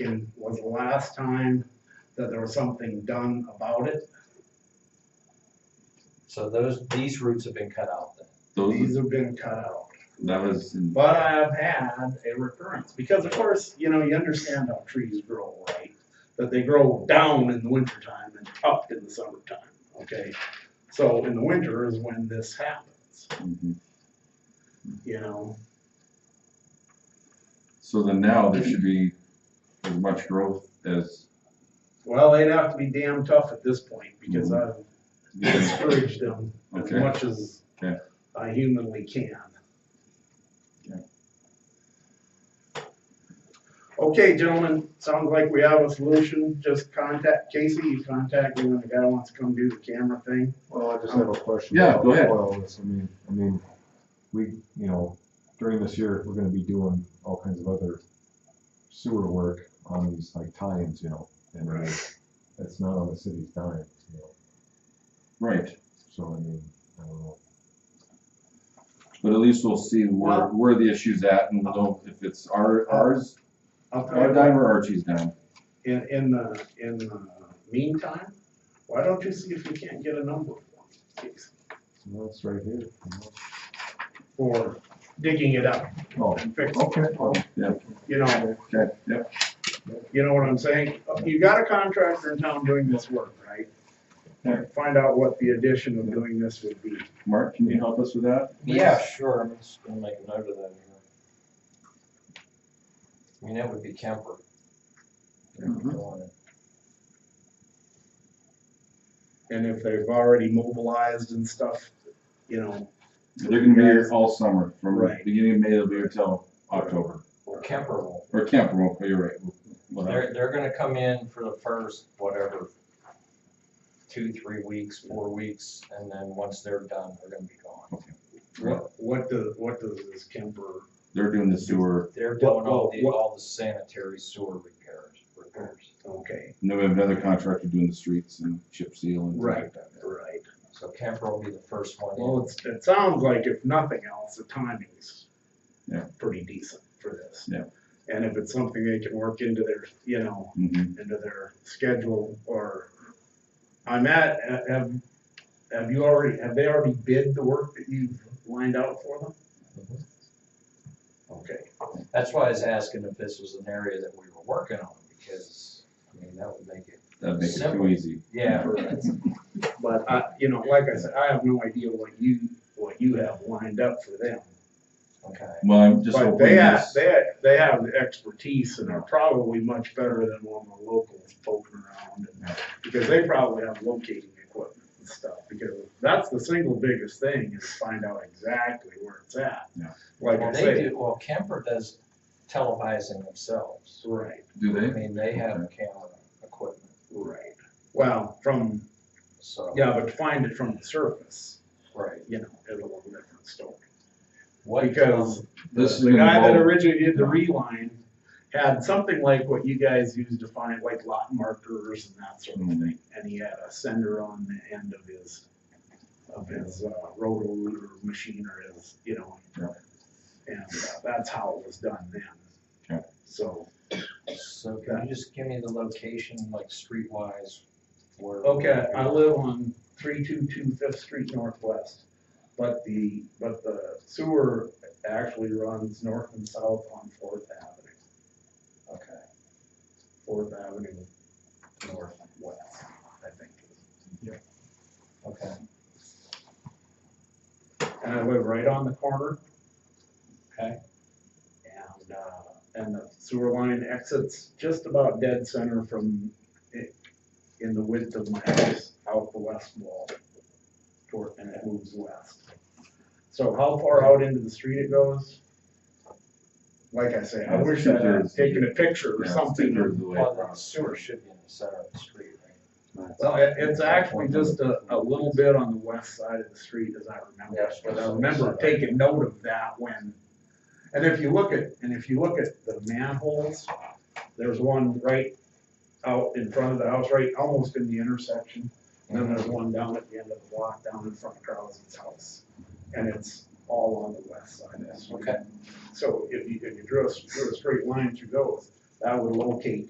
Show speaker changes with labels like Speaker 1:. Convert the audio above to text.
Speaker 1: it was the last time that there was something done about it.
Speaker 2: So those, these roots have been cut out then.
Speaker 1: These
Speaker 3: Those,
Speaker 1: have been cut out.
Speaker 3: that was, in-
Speaker 1: But I have had a recurrence, because of course, you know, you understand how trees grow, right? That they grow down in the wintertime and up in the summertime, okay? So in the winter is when this happens,
Speaker 3: mhm.
Speaker 1: you know?
Speaker 3: so then now there should be as much growth as,
Speaker 1: Well, they'd have to be damn tough at this point, because I've discouraged them as
Speaker 3: Okay.
Speaker 1: much as
Speaker 3: Okay.
Speaker 1: I humanly can.
Speaker 3: Okay.
Speaker 1: Okay, gentlemen, sounds like we have a solution, just contact Casey, you contact me when the guy wants to come do the camera thing.
Speaker 4: Well, I just have a question.
Speaker 3: Yeah, go ahead.
Speaker 4: about oil and this. I mean, I mean, we, you know, during this year, we're gonna be doing all kinds of other sewer work on these like tie-ins, you know, and that's not on the city's dime, you know,
Speaker 3: right,
Speaker 4: so I mean, I don't know.
Speaker 3: but at least we'll see where, where the issue's at and we'll know if it's our, ours,
Speaker 1: I'll tell you
Speaker 3: our
Speaker 1: what,
Speaker 3: dime or Archie's dime.
Speaker 1: in, in the, in the meantime, why don't you see if you can't get a number for me, Casey,
Speaker 4: So that's right here. you know.
Speaker 1: for digging it up
Speaker 4: Oh,
Speaker 1: and fixing,
Speaker 4: okay, well,
Speaker 1: it, you know?
Speaker 3: Okay, yep,
Speaker 1: You know what I'm saying? You got a contractor in town doing this work, right?
Speaker 3: Yeah.
Speaker 1: Find out what the addition of doing this would be.
Speaker 3: Mark, can you help us with that?
Speaker 2: Yeah, sure, I'm just gonna make a note of that here. I mean, that would be Kemper. If you
Speaker 1: Mm-hmm.
Speaker 3: Mhm.
Speaker 2: want it.
Speaker 1: And if they've already mobilized and stuff, you know,
Speaker 3: They're gonna be here all summer, from
Speaker 1: Right.
Speaker 3: beginning of May, they'll be here till October,
Speaker 2: Well, Kemper will,
Speaker 3: or Kemp, well, you're right. we'll- we'll-
Speaker 2: they're, they're gonna come in for the first, whatever, two, three weeks, four weeks, and then once they're done, they're gonna be gone.
Speaker 1: what, what does, what does this Kemper?
Speaker 3: They're doing the sewer,
Speaker 2: They're doing all the,
Speaker 1: What- what-
Speaker 2: all the sanitary sewer repairs, repairs.
Speaker 1: Okay,
Speaker 3: and then we have another contractor doing the streets and chip seal and. things like
Speaker 1: Right.
Speaker 3: that.
Speaker 1: right.
Speaker 2: So Kemper will be the first one in.
Speaker 1: Well, it's, it sounds like if nothing else, the timing's
Speaker 3: Yeah.
Speaker 1: pretty decent for this.
Speaker 3: Yeah.
Speaker 1: And if it's something they can work into their, you know,
Speaker 3: Mhm.
Speaker 1: into their schedule or, I'm at, have, have you already, have they already bid the work that you've lined out for them?
Speaker 2: Mhm.
Speaker 1: Okay,
Speaker 2: That's why I was asking if this was an area that we were working on, because, I mean, that would make it,
Speaker 3: That'd make it too
Speaker 2: Simple.
Speaker 3: easy.
Speaker 2: yeah,
Speaker 1: but I, you know, like I said, I have no idea what you, what you have lined up for them.
Speaker 2: okay.
Speaker 3: Well, I'm just
Speaker 1: But
Speaker 3: hoping
Speaker 1: they have,
Speaker 3: this,
Speaker 1: they have, they have the expertise and are probably much better than all the locals poking around. and- Because they probably have locating equipment and stuff, because that's the single biggest thing is find out exactly where it's at.
Speaker 3: Yeah.
Speaker 1: Like I
Speaker 2: Well, they
Speaker 1: say,
Speaker 2: do, well, Kemper does televising themselves.
Speaker 1: right,
Speaker 3: do
Speaker 2: I
Speaker 3: they?
Speaker 2: mean, they have camera equipment,
Speaker 1: right. Well, from,
Speaker 2: so,
Speaker 1: yeah, but to find it from the surface,
Speaker 2: right.
Speaker 1: you know, is a little different story.
Speaker 2: What,
Speaker 1: Because
Speaker 2: um,
Speaker 3: This is
Speaker 1: The
Speaker 3: gonna
Speaker 1: guy that
Speaker 3: involve-
Speaker 1: originally did the reline had something like what you guys use to find like lot markers and that sort of
Speaker 3: Mhm.
Speaker 1: thing. And he had a sender on the end of his, of his uh, rotor or machine or his, you know.
Speaker 3: Yeah.
Speaker 1: And uh, that's how it was done then.
Speaker 3: Okay.
Speaker 1: So,
Speaker 2: um, so can you just give me the location, like streetwise, where?
Speaker 1: okay, I live on three two two Fifth Street Northwest. But the, but the sewer actually runs north and south on Fourth Avenue.
Speaker 2: Okay.
Speaker 1: Fourth Avenue Northwest, I think.
Speaker 2: Okay,
Speaker 1: And I live right on the corner
Speaker 2: okay,
Speaker 1: and, uh, and the sewer line exits just about dead center from it, in the width of my house, out the west wall. Toward, and it moves west. So how far out into the street it goes? Like I say, I
Speaker 3: Yeah,
Speaker 1: wish
Speaker 3: two
Speaker 1: I had
Speaker 3: thirds.
Speaker 1: taken a picture or
Speaker 3: Yeah,
Speaker 1: something.
Speaker 3: two-thirds of the way
Speaker 2: well, the
Speaker 3: across.
Speaker 2: sewer should be in the center of the street, right?
Speaker 1: Well, it, it's actually just a, a little bit on the west side of the street, as I remember,
Speaker 2: Yes.
Speaker 1: but I remember taking note of that when, and if you look at, and if you look at the manholes, there's one right out in front of the house, right, almost in the intersection, and then there's one down at the end of the block, down in front of Carlson's house, and it's all on the west side of the street.
Speaker 2: Okay.
Speaker 1: So if you, if you drew a, drew a straight line to those, that would locate